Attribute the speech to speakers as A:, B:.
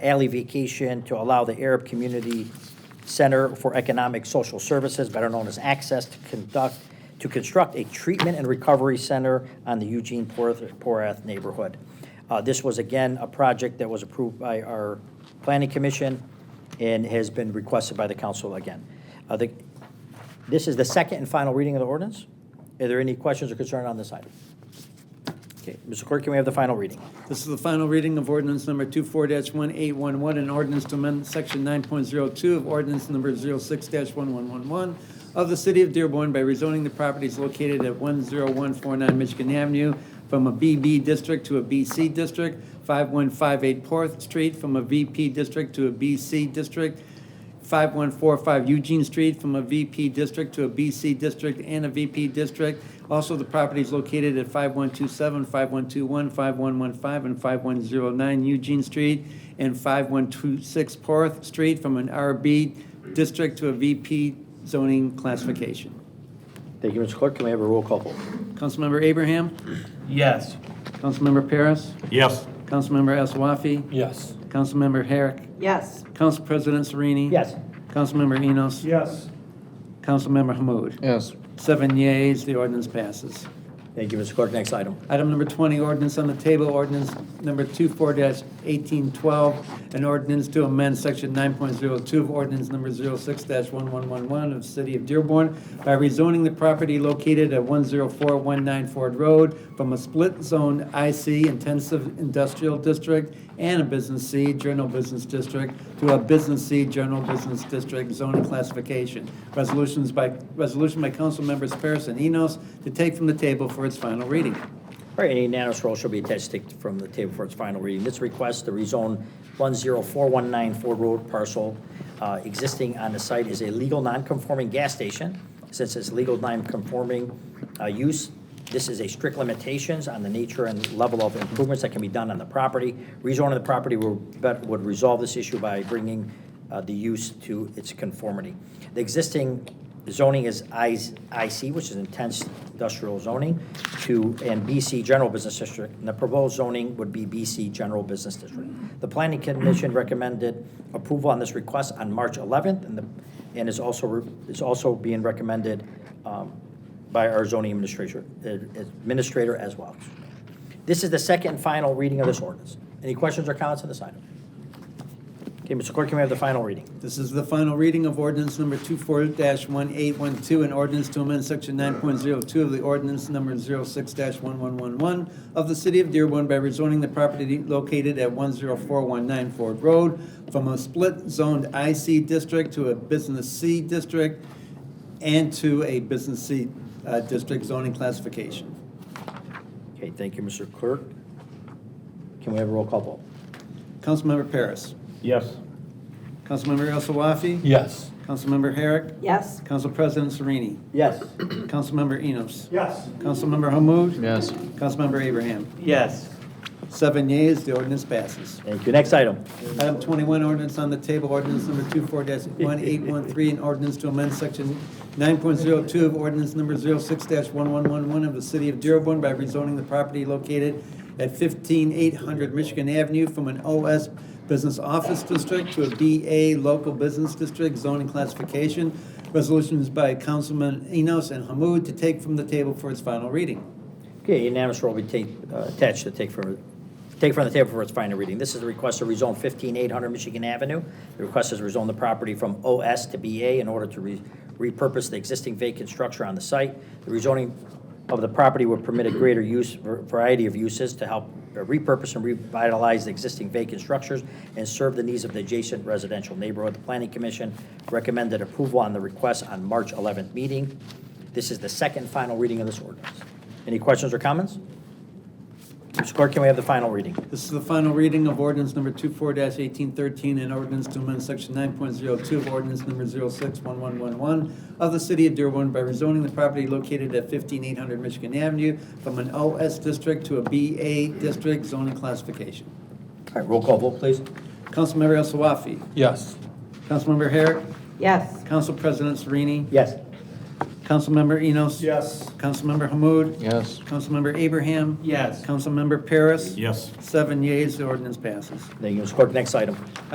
A: alley vacation to allow the Arab Community Center for Economic Social Services, better known as Access, to conduct, to construct a treatment and recovery center on the Eugene Porath Porath neighborhood. Uh, This was, again, a project that was approved by our planning commission and has been requested by the council again. Uh, the- This is the second and final reading of the ordinance. Are there any questions or concern on this item? Okay, Mr. Clerk, can we have the final reading?
B: This is the final reading of ordinance number 24-1811, an ordinance to amend section 9.02 of ordinance number 06-1111 of the city of Dearborn by rezoning the properties located at 10149 Michigan Avenue from a BB district to a BC district, 5158 Porth Street from a VP district to a BC district, 5145 Eugene Street from a VP district to a BC district and a VP district. Also, the property is located at 5127, 5121, 5115, and 5109 Eugene Street, and 5126 Porth Street from an RB district to a VP zoning classification.
A: Thank you, Mr. Clerk. Can we have a roll call vote?
B: Councilmember Abraham?
C: Yes.
B: Councilmember Paris?
C: Yes.
B: Councilmember El Wafi?
C: Yes.
B: Councilmember Herrick?
D: Yes.
B: Council President Sereni?
A: Yes.
B: Councilmember Enos?
C: Yes.
B: Councilmember Hamud?
E: Yes.
B: Seven yeas, the ordinance passes.
A: Thank you, Mr. Clerk. Next item.
B: Item number 20, ordinance on the table, ordinance number 24-1812, an ordinance to amend section 9.02 of ordinance number 06-1111 of City of Dearborn by rezoning the property located at 10419 Ford Road from a split zone IC intensive industrial district and a business C general business district to a business C general business district zoning classification. Resolutions by, resolution by council members Paris and Enos to take from the table for its final reading.
A: All right, any unanimous roll shall be attached to take from the table for its final reading. This request to rezone 10419 Ford Road parcel uh, existing on the site is a legal non-conforming gas station. Since it's legal non-conforming uh, use, this is a strict limitations on the nature and level of improvements that can be done on the property. Rezoning the property will- but would resolve this issue by bringing uh, the use to its conformity. The existing zoning is I- IC, which is intense industrial zoning, to, and BC General Business District, and the proposed zoning would be BC General Business District. The Planning Commission recommended approval on this request on March 11th, and the, and is also, re- is also being recommended um, by our zoning administrator, uh, administrator as well. This is the second and final reading of this ordinance. Any questions or comments on this item? Okay, Mr. Clerk, can we have the final reading?
B: This is the final reading of ordinance number 24-1812, an ordinance to amend section 9.02 of the ordinance number 06-1111 of the city of Dearborn by rezoning the property located at 10419 Ford Road from a split-zoned IC district to a business C district and to a business C uh, district zoning classification.
A: Okay, thank you, Mr. Clerk. Can we have a roll call vote?
B: Councilmember Paris.
C: Yes.
B: Councilmember El Sawafi.
C: Yes.
B: Councilmember Herrick.
D: Yes.
B: Council President Sereni.
A: Yes.
B: Councilmember Enos.
C: Yes.
B: Councilmember Hamud?
E: Yes.
B: Councilmember Abraham?
C: Yes.
B: Seven yeas, the ordinance passes.
A: Thank you. Next item.
B: Item 21, ordinance on the table, ordinance number 24-1813, an ordinance to amend section 9.02 of ordinance number 06-1111 of the city of Dearborn by rezoning the property located at 15800 Michigan Avenue from an OS Business Office District to a BA Local Business District zoning classification. Resolutions by Councilman Enos and Hamud to take from the table for its final reading.
A: Okay, unanimous roll will be take, uh, attached to take from, take from the table for its final reading. This is the request to rezone 15800 Michigan Avenue. The request is to rezone the property from OS to BA in order to re- repurpose the existing vacant structure on the site. The rezoning of the property would permit a greater use, variety of uses to help uh, repurpose and revitalize the existing vacant structures and serve the needs of the adjacent residential neighborhood. The Planning Commission recommended approval on the request on March 11th meeting. This is the second final reading of this ordinance. Any questions or comments? Mr. Clerk, can we have the final reading?
B: This is the final reading of ordinance number 24-1813, an ordinance to amend section 9.02 of ordinance number 061111 of the city of Dearborn by rezoning the property located at 15800 Michigan Avenue from an OS district to a BA district zoning classification.
A: All right, roll call vote, please.
B: Councilmember El Sawafi.
C: Yes.
B: Councilmember Herrick.
D: Yes.
B: Council President Sereni.
A: Yes.
B: Councilmember Enos.
C: Yes.
B: Councilmember Hamud.
D: Yes.
B: Councilmember Abraham.
C: Yes.
B: Councilmember Paris.
C: Yes.
B: Seven yeas, the ordinance passes.
A: Thank you, Ms. Clerk. Next item.